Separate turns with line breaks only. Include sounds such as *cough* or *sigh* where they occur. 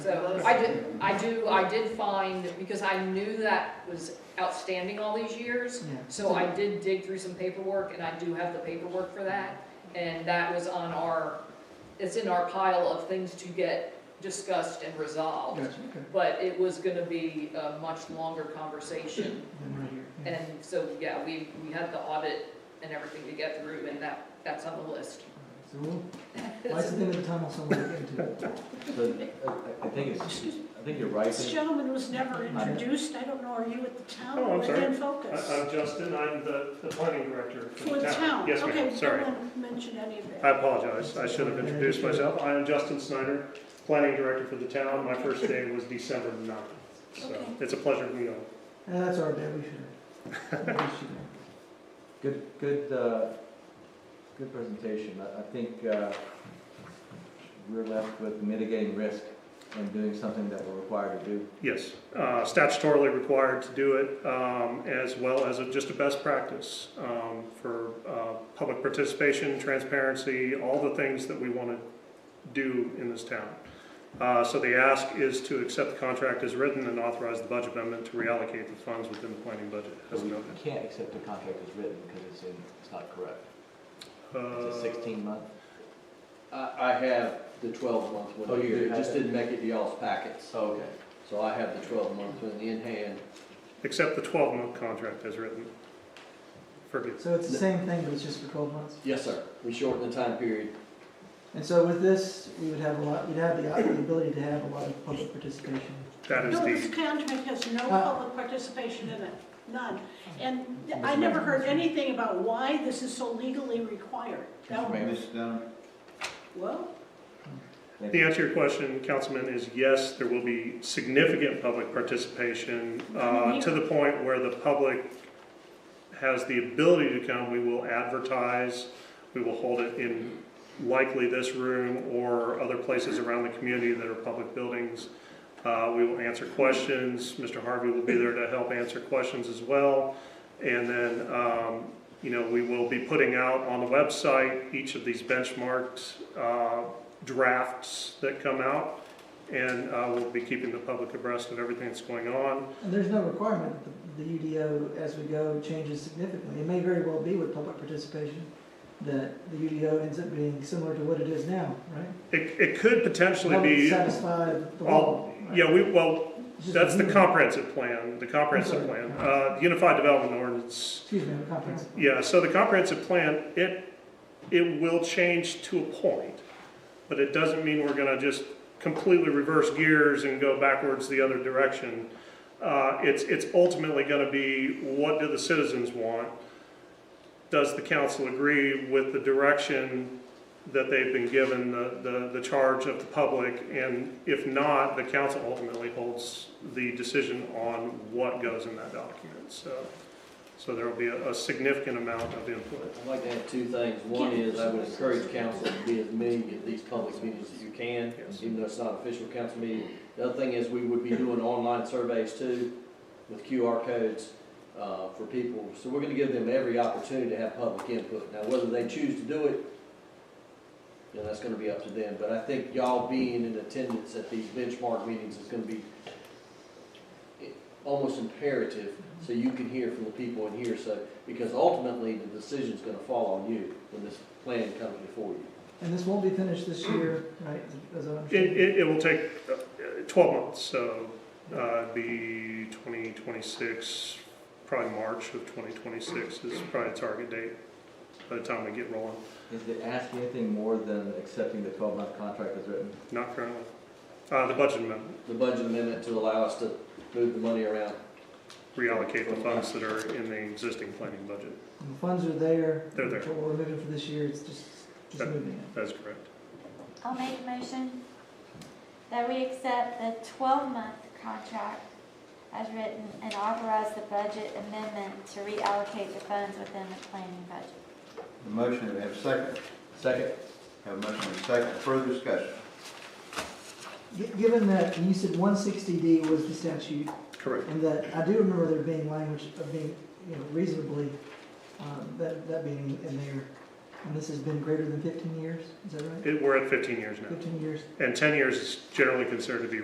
I did, I do, I did find, because I knew that was outstanding all these years,
Yeah.
so I did dig through some paperwork, and I do have the paperwork for that, and that was on our, it's in our pile of things to get discussed and resolved.
oh, Gotcha, okay.
But it was gonna be a much longer conversation,
Then right here, yeah.
and so, yeah, we, we had the audit and everything to get through, and that, that's on the list.
So we'll, lights at the
*laughs*
end of the tunnel somewhere to get *laughs* to.
But I- I think it's, I think you're right.
This gentleman was never introduced, I don't know, are you at the town
Oh, I'm
or
sorry.
Dan
I-
Focus?
I'm Justin, I'm the, the planning director
For the town?
Yes, ma'am, sorry.
Okay, you didn't mention any of
I
that.
apologize, I should have introduced myself. I am Justin Snyder, planning director for the town. My first day was December 9th. So
Okay.
it's a pleasure to meet all.
Uh, that's our bad, we should *laughs* have. we should have.
Good, good, uh, good presentation. I, I think, uh, we're left with mitigating risk and doing something that we're required to do.
Yes, uh, statutorily required to do it, um, as well as a- just a best practice um, for uh, public participation, transparency, all the things that we want to do in this town. Uh, So the ask is to accept the contract as written and authorize the budget amendment to reallocate the funds within the planning budget as
But we
noted.
can't accept a contract as written because it's in, it's not correct. It's a
Uh,
sixteen month.
I, I have the twelve month
Oh,
one
you do
here, it just
have it.
didn't make it to y'all's
oh,
packets,
Okay.
so I have the twelve month one in hand.
Accept the 12-month contract as written. Forget,
So it's the same thing, but it's just for twelve months?
Yes, sir, we shortened the time period.
And so with this, we would have a lot, we'd have the the ability to have a lot of public participation.
that is
No,
the,
this contract has no
Uh,
public participation in it, none. And th- I never heard anything about why this is so legally required. That-
Ma'am.
Well,
Thank
the
you.
answer to your question, Councilman, is yes, there will be significant public participation, uh, to the point where the public has the ability to come. We will advertise, we will hold it in likely this room or other places around the community that are public buildings. Uh, We will answer questions. Mr. Harvey will be there to help answer questions as well. And then, um, you know, we will be putting out on the website each of these benchmarked uh, drafts that come out. And uh, we'll be keeping the public abreast of everything that's going on.
And there's no requirement that the the UDO, as we go, changes significantly. It may very well be with public participation that the UDO ends up being similar to what it is now, right?
It it could potentially
Public
be,
Satisfy the law.
all- yeah, we, well,
It's just
that's the
a-
comprehensive plan, the comprehensive plan. Uh, Unified Development Ordinance
Excuse me, I'm comprehensive.
Yeah, so the comprehensive plan, it, it will change to a point, but it doesn't mean we're gonna just completely reverse gears and go backwards the other direction. Uh, it's, it's ultimately gonna be, what do the citizens want? Does the council agree with the direction that they've been given, the, the, the charge of the public? And if not, the council ultimately holds the decision on what goes in that document, so. So there will be a, a significant amount of input.
I'd like to add two things. One is I would encourage council to be as many of these public meetings as you can,
Yes.
even though it's not an official council meeting. The other thing is we would be doing online surveys too with QR codes uh, for people. So we're going to give them every opportunity to have public input. Now, whether they choose to do it, you know, that's going to be up to them. But I think y'all being in attendance at these benchmark meetings is going to be almost imperative so you can hear from the people in here. So because ultimately, the decision's gonna fall on you when this plan comes before you.
And this won't be finished this year, right, as I
It,
understand?
it, it will take uh, twelve months, so, uh, it'd be twenty twenty-six, probably March of twenty twenty-six is probably a target date by the time we get rolling,
Is it asking anything more than accepting the twelve month contract as written?
not currently. Uh, the budget amendment,
The budget amendment to allow us to move the money around.
reallocate the funds that are in the existing planning budget,
The funds are there.
They're there.
What we're moving for this year, it's just, just
That-
moving it.
that's correct.
I'll make a motion that we accept the twelve-month contract as written and authorize the budget amendment to reallocate the funds within the planning budget.
A motion, do we have a second?
Second,
Have a motion and a second, further discussion?
Gi- Given that, and you said one sixty D was the statute,
Correct.
and that, I do remember there being language of being, you know, reasonably, um, that, that being in there. And this has been greater than fifteen years, is that right?
It, we're at fifteen years now,
Fifteen years?
and ten years is generally considered to be